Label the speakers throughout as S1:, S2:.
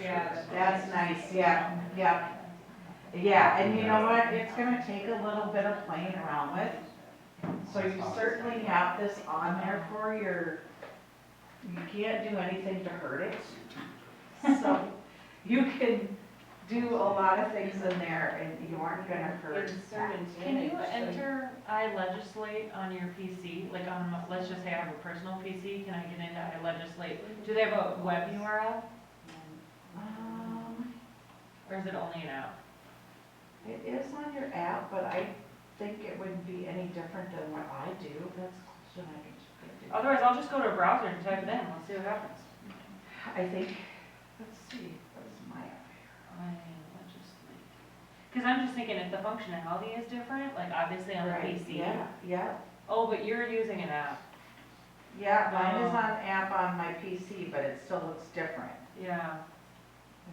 S1: Yeah,
S2: That's nice, yeah, yeah. Yeah, and you know what, it's gonna take a little bit of playing around with. So you certainly have this on there for your, you can't do anything to hurt it. So you can do a lot of things in there and you aren't gonna hurt.
S1: Insert
S2: that.
S1: into
S3: Can
S1: it,
S3: you
S1: actually.
S3: enter I legislate on your PC, like on, my- let's just say I have a personal PC, can I get into I legislate? Do they have a web URL
S2: Um,
S3: or is it only an app?
S2: it is on your app, but I think it wouldn't be any different than what I do. That's a question I can check into.
S3: Otherwise, I'll just go to a browser and type it in, let's see what happens.
S2: I think, let's see, what is my,
S3: I legislate. Cause I'm just thinking if the functionality is different, like obviously on the
S2: right,
S3: PC.
S2: yeah, yeah,
S3: Oh, but you're using an app,
S2: yeah, mine is
S3: Oh.
S2: on app on my PC, but it still looks different.
S3: yeah.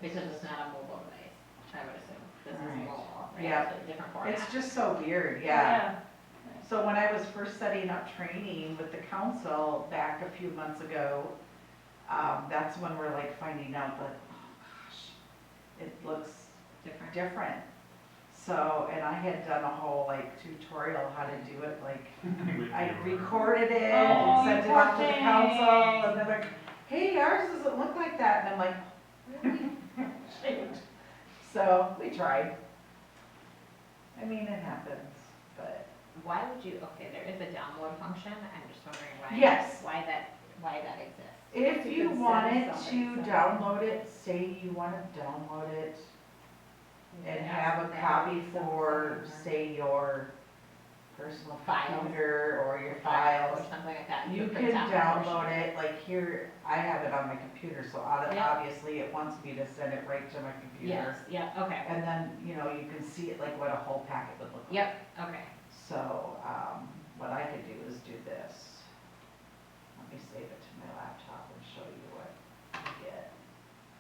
S4: Because it's not a mobile device, I would assume, this is
S2: Right.
S4: mobile, right?
S2: Yeah.
S4: So Different format.
S2: It's just so weird, yeah. So when I was first setting up training with the council back a few months ago, um, that's when we're like finding out that, oh gosh, it looks
S4: Different.
S2: different. So, and I had done a whole like tutorial how to do it, like I recorded it
S3: Oh,
S2: and
S3: you
S2: sent it
S3: poor
S2: off to the
S3: thing.
S2: council, and they're like, hey, ours doesn't look like that, and I'm like, really? Shoot. So, we tried. I mean, it happens, but,
S4: Why would you, okay, there is a download function, I'm just wondering why.
S2: Yes.
S4: Why that, why that exists.
S2: if
S1: You
S2: you
S1: can
S2: wanted
S1: send
S2: to
S1: something, so-
S2: download it, say you wanna download it and have a copy for, say, your personal
S4: Files.
S2: computer or your
S4: File
S2: files,
S4: or something like that.
S2: You
S4: could
S2: can
S4: print out a version.
S2: download it, like here, I have it on my computer, so ob-
S4: Yeah.
S2: obviously it wants me to send it right to my
S4: Yes,
S2: computer.
S4: yeah, okay,
S2: And then, you know, you can see it like what a whole packet would look like.
S4: yep, okay.
S2: So, um, what I could do is do this. Let me save it to my laptop and show you what you get.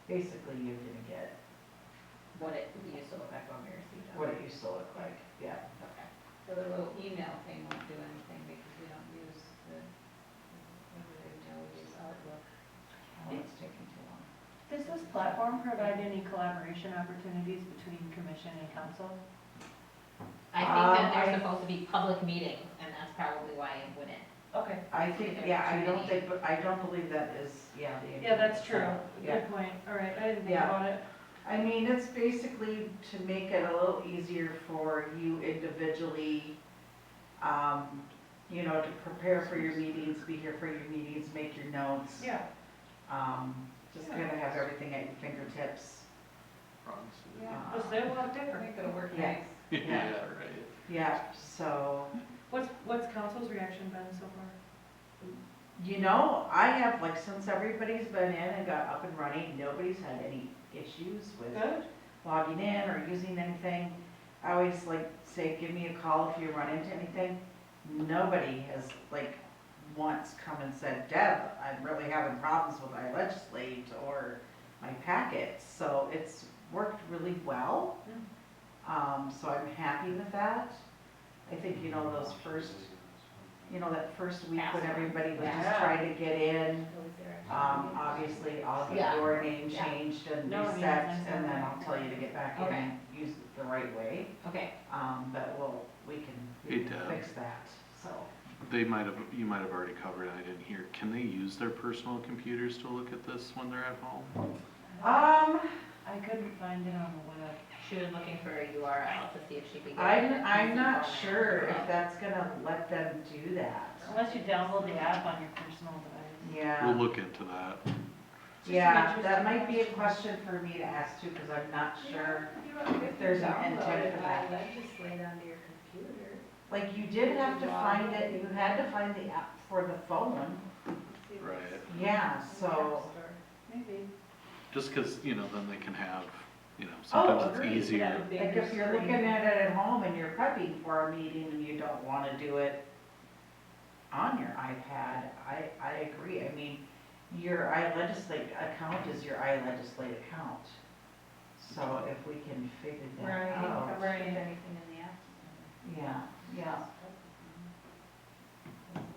S2: Basically, you're gonna get
S4: What it used to look like when we received it.
S2: what it used to look like, yeah.
S4: Okay. So the little email thing won't do anything because we don't use the, what do we do, we use Outlook.
S2: Oh, it's taking too long.
S3: Does this platform provide any collaboration opportunities between commission and council?
S4: I think
S2: Um,
S4: that
S2: I-
S4: they're supposed to be public meetings and that's probably why it wouldn't.
S3: Okay.
S2: I think,
S4: There's
S2: yeah, I
S4: too
S2: don't
S4: many.
S2: think, but I don't believe that is, yeah, the.
S3: Yeah, that's true.
S2: Yeah.
S3: Good point. All right, I didn't think
S2: Yeah.
S3: about it.
S2: I mean, it's basically to make it a little easier for you individually, um, you know, to prepare for your meetings, be here for your meetings, make your notes.
S3: Yeah.
S2: Um, just kind of have everything at your fingertips.
S3: Oh, Well,
S2: Uh,
S3: they will have different.
S4: think it'll work
S2: Yeah. Yeah,
S5: right.
S2: Yeah, so,
S3: What's, what's council's reaction been so far?
S2: you know, I have, like, since everybody's been in and got up and running, nobody's had any issues with
S3: Good.
S2: logging in or using anything. I always like say, give me a call if you run into anything. Nobody has like once come and said, Deb, I'm really having problems with my legislate or my packets. So it's worked really well. Um, so I'm happy with that. I think, you know, those first, you know, that first week when everybody was just
S3: Yeah.
S2: trying to get in. Um,
S4: Um,
S2: obviously, I'll
S4: Yeah.
S2: get your name
S4: Yeah.
S2: changed and
S3: No, I mean,
S2: reset,
S3: that's
S2: and then
S3: not
S2: I'll tell you to get back in
S4: Okay.
S2: and use it the right way.
S4: Okay,
S2: Um, but we'll, we can, we
S5: Hey,
S2: can
S5: Deb.
S2: fix that, so.
S5: They might have, you might have already covered, it, I didn't hear, can they use their personal computers to look at this when they're at home?
S2: Um,
S3: I couldn't find it on the web.
S4: she was looking for a URL to see if she could get.
S2: I'm,
S4: it.
S2: I'm not
S4: Okay.
S2: sure if that's gonna let them do that.
S3: Unless you download the app on your personal device.
S5: We'll
S2: Yeah,
S5: look into that.
S3: Just an
S2: yeah, that
S3: interesting
S2: might be a
S3: question.
S2: question for me to ask too, because I'm not sure.
S1: If
S2: there's an intent for that.
S1: Legislate onto your computer,
S2: Like, you did have to find it, you had to find the app for the phone,
S1: see what's
S5: Right.
S1: in
S2: yeah,
S1: the
S2: so.
S1: app store.
S3: Maybe.
S5: Just because, you know, then they can have, you know,
S2: Oh,
S5: sometimes
S2: agreed.
S5: it's easier.
S3: That would be
S2: Like if you're
S3: interesting.
S2: looking at it at home and you're prepping for a meeting and you don't wanna do it on your iPad, I, I agree, I mean, your iLegislate account is your iLegislate account. So if we can figure that
S1: Right,
S2: out,
S1: right. Anything in the app.
S2: yeah, yeah,